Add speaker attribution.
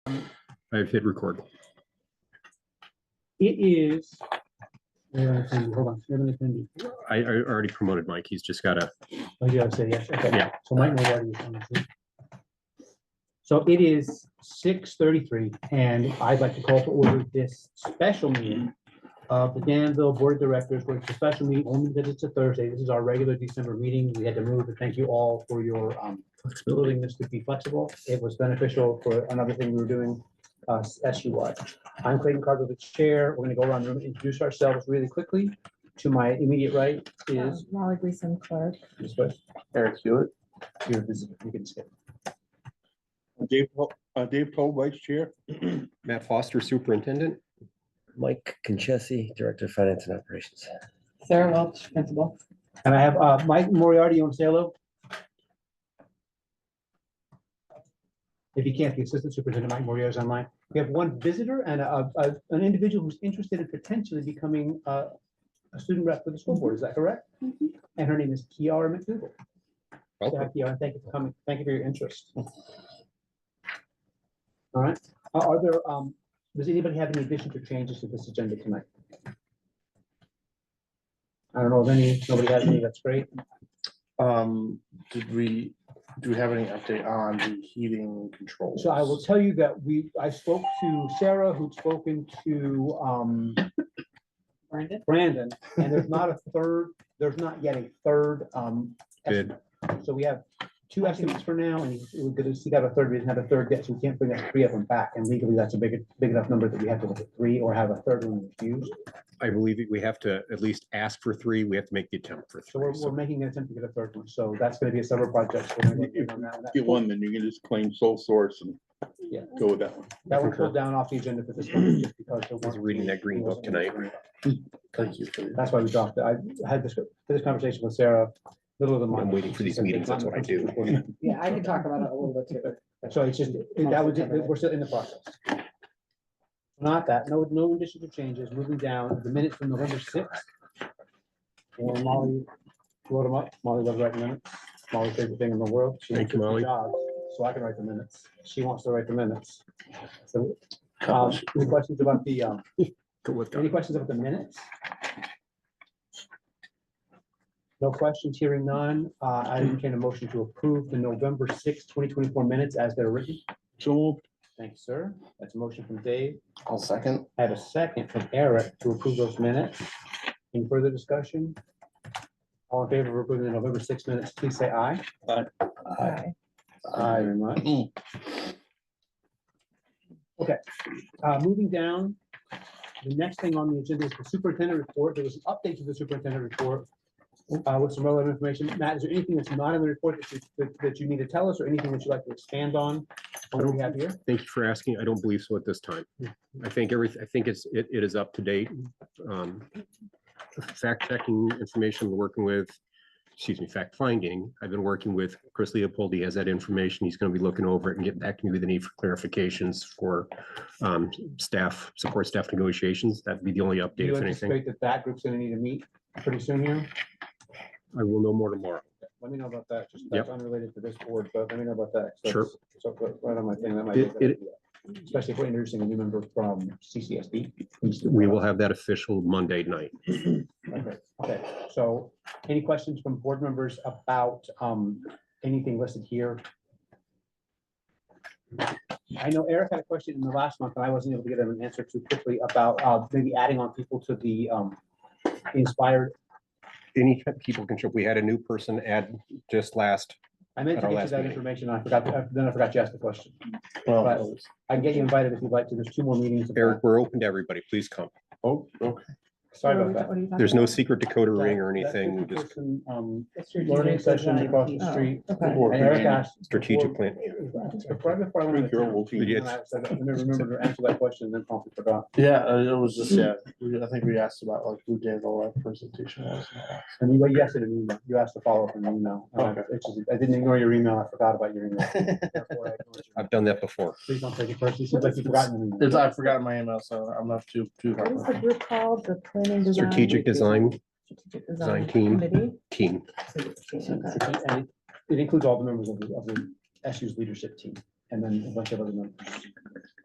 Speaker 1: I've hit record.
Speaker 2: It is. where am I sending? Hold on, seven attendee.
Speaker 1: I, I already promoted Mike. He's just got to,
Speaker 2: Oh, you have to say yes, okay.
Speaker 1: Yeah.
Speaker 2: So Mike knows already is on this. So it is six thirty-three, and I'd like to call to order this special meeting of the Danville Board of Directors, which is a special meeting only because it's a Thursday. This is our regular December meeting. We had to move, but thank you all for your um, willingness to be flexible. It was beneficial for another thing we were doing, uh, SUI. I'm Clayton Carter, the chair. We're gonna go around the room, and introduce ourselves really quickly. To my immediate right
Speaker 3: Um,
Speaker 2: is
Speaker 3: Molly Gleason Clark.
Speaker 2: this way. Eric Hewitt. You're visiting, you can skip.
Speaker 4: Dave, Pol- uh, Dave Toll, Vice Chair.
Speaker 1: Matt Foster, Superintendent.
Speaker 5: Mike Conchessi, Director of Finance and Operations.
Speaker 3: Sarah Welch, Principal.
Speaker 2: And I have uh, Mike Moriarty, you want to say hello? If you can't, the Assistant Superintendent Mike Moriarty is online. We have one visitor and a- a- an individual who's interested in potentially becoming uh, a student rep for the school board, is that correct? And her name is Kiara McDougal. So,
Speaker 1: Welcome.
Speaker 2: Kiara, thank you for coming, thank you for your interest. All right, Are- are there, um, does anybody have any additions or changes to this agenda tonight? I don't know of any, nobody has any, that's great.
Speaker 6: Um, did we, do we have any update on the heating controls?
Speaker 2: So I will tell you that we, I spoke to Sarah, who'd spoken to um
Speaker 3: Brandon.
Speaker 2: Brandon, and there's not a third, there's not yet a third um.
Speaker 1: Bid.
Speaker 2: estimate. So we have two estimates for now, and we're gonna see that a third, we didn't have a third yet, so we can't bring us three of them back, and legally, that's a big, big enough number that we have to look at three or have a third one refused.
Speaker 1: I believe that we have to at least ask for three. We have to make the attempt for
Speaker 2: So we're,
Speaker 1: three.
Speaker 2: we're
Speaker 1: So
Speaker 2: making an attempt to get a third one, so that's gonna be a several project. We're gonna work on that one.
Speaker 4: If you won, then you can just claim sole source and
Speaker 2: Yeah.
Speaker 4: go with that one.
Speaker 2: That one pulled down off the agenda for this one, just because. there
Speaker 1: I was
Speaker 2: weren't-
Speaker 1: reading that green book tonight.
Speaker 6: Thank you. for your-
Speaker 2: That's why we dropped it. I had this, this conversation with Sarah, middle of the month.
Speaker 1: I'm waiting for these meetings, that's what I do.
Speaker 3: Yeah, I can talk about it a little bit too.
Speaker 2: So it's just, that was, it. we're still in the process. Not that, no, no additions or changes. Moving down, the minutes from November sixth. And Molly wrote them up. Molly loves writing minutes. Molly's favorite thing in the world. She
Speaker 1: Thank you,
Speaker 2: quit the
Speaker 1: Molly.
Speaker 2: job, So I can write the minutes. She wants to write the minutes. So, um, any questions about the, um,
Speaker 1: Go with
Speaker 2: any
Speaker 1: that.
Speaker 2: questions about the minutes? No questions, hearing none. Uh, I entertain a motion to approve the November sixth, twenty twenty-four minutes as they're written.
Speaker 4: So moved.
Speaker 2: Thank you, sir. That's a motion from Dave.
Speaker 6: I'll second.
Speaker 2: I have a second from Eric to approve those minutes. Any further discussion? All in favor of approving the November sixth minutes, please say aye.
Speaker 3: Aye.
Speaker 2: Aye. very much. Okay, uh, moving down, the next thing on the agenda is the superintendent report. There was an update to the superintendent report uh, with some relevant information. Matt, is there anything that's not in the report that you, that- that you need to tell us or anything that you'd like to expand on? What do we have here?
Speaker 1: Thank you for asking. I don't believe so at this time. I think every, I think it's, it, it is up to date. Um, Fact checking information, we're working with, excuse me, fact finding. I've been working with Chris Leopold. He has that information. He's going to be looking over it and get back to me with the need for clarifications for um, staff, support staff negotiations. That'd be the only
Speaker 2: Do
Speaker 1: update
Speaker 2: you
Speaker 1: if anything.
Speaker 2: anticipate that that group's gonna need to meet pretty soon here?
Speaker 1: I will know more tomorrow.
Speaker 2: Let me know about that, just
Speaker 1: Yep.
Speaker 2: that's unrelated to this board, but let me know about that. 'cause
Speaker 1: Sure.
Speaker 2: that's- So, put right on my thing, that might. be a
Speaker 1: It-
Speaker 2: good
Speaker 1: it-
Speaker 2: idea. Especially if we're introducing a new member from CCSD.
Speaker 1: We will have that official Monday night.
Speaker 2: Okay, Okay. so any questions from board members about um, anything listed here? I know Eric had a question in the last month, and I wasn't able to get him an answer too quickly about uh, maybe adding on people to the um, inspired.
Speaker 1: Any people can show, we had a new person add just last,
Speaker 2: I meant
Speaker 1: At
Speaker 2: to
Speaker 1: our
Speaker 2: get you
Speaker 1: last
Speaker 2: that
Speaker 1: meeting.
Speaker 2: information, I forgot, uh, then I forgot to ask the question.
Speaker 6: Well,
Speaker 2: I can get you invited if you'd like to. There's two more meetings. of
Speaker 1: Eric, we're open to everybody. Please come.
Speaker 6: Oh, okay.
Speaker 2: that. Sorry about that.
Speaker 3: that.
Speaker 1: There's no secret Dakota ring or
Speaker 2: That- that
Speaker 1: anything. We
Speaker 2: fifty
Speaker 1: just
Speaker 2: person, um,
Speaker 3: It's your
Speaker 2: Learning
Speaker 3: design
Speaker 2: session across the
Speaker 3: piece. Oh,
Speaker 2: street.
Speaker 3: okay.
Speaker 6: Or
Speaker 2: And Eric
Speaker 6: Virginia.
Speaker 2: asked.
Speaker 1: strategic
Speaker 2: before-
Speaker 1: plan.
Speaker 2: Right before I went out of town,
Speaker 4: Three-year-old team.
Speaker 1: Yeah.
Speaker 2: and I said, I never remembered to answer that question, and then promptly forgot.
Speaker 6: Yeah, uh, it was
Speaker 3: Hmm.
Speaker 6: just, yeah, we- I think we asked about like who did all that presentation was.
Speaker 2: And you, you asked it in an email. You asked to follow up in an email. And I-
Speaker 6: Okay.
Speaker 2: it's just- I didn't ignore your email. I forgot about your email. Therefore, I ignored you.
Speaker 1: I've done that before.
Speaker 2: Please don't take it personally. It seems like you've forgotten. an
Speaker 6: It's,
Speaker 2: email.
Speaker 6: I forgot my email, so I'm not too, too
Speaker 3: What is the
Speaker 6: hard.
Speaker 3: group called? The planning design?
Speaker 1: Strategic design
Speaker 3: Strategic Design
Speaker 1: Design team.
Speaker 3: Committee?
Speaker 1: team.
Speaker 3: Okay.
Speaker 2: And it- It includes all the members of the, of the SU's leadership team. and then a bunch of other numbers.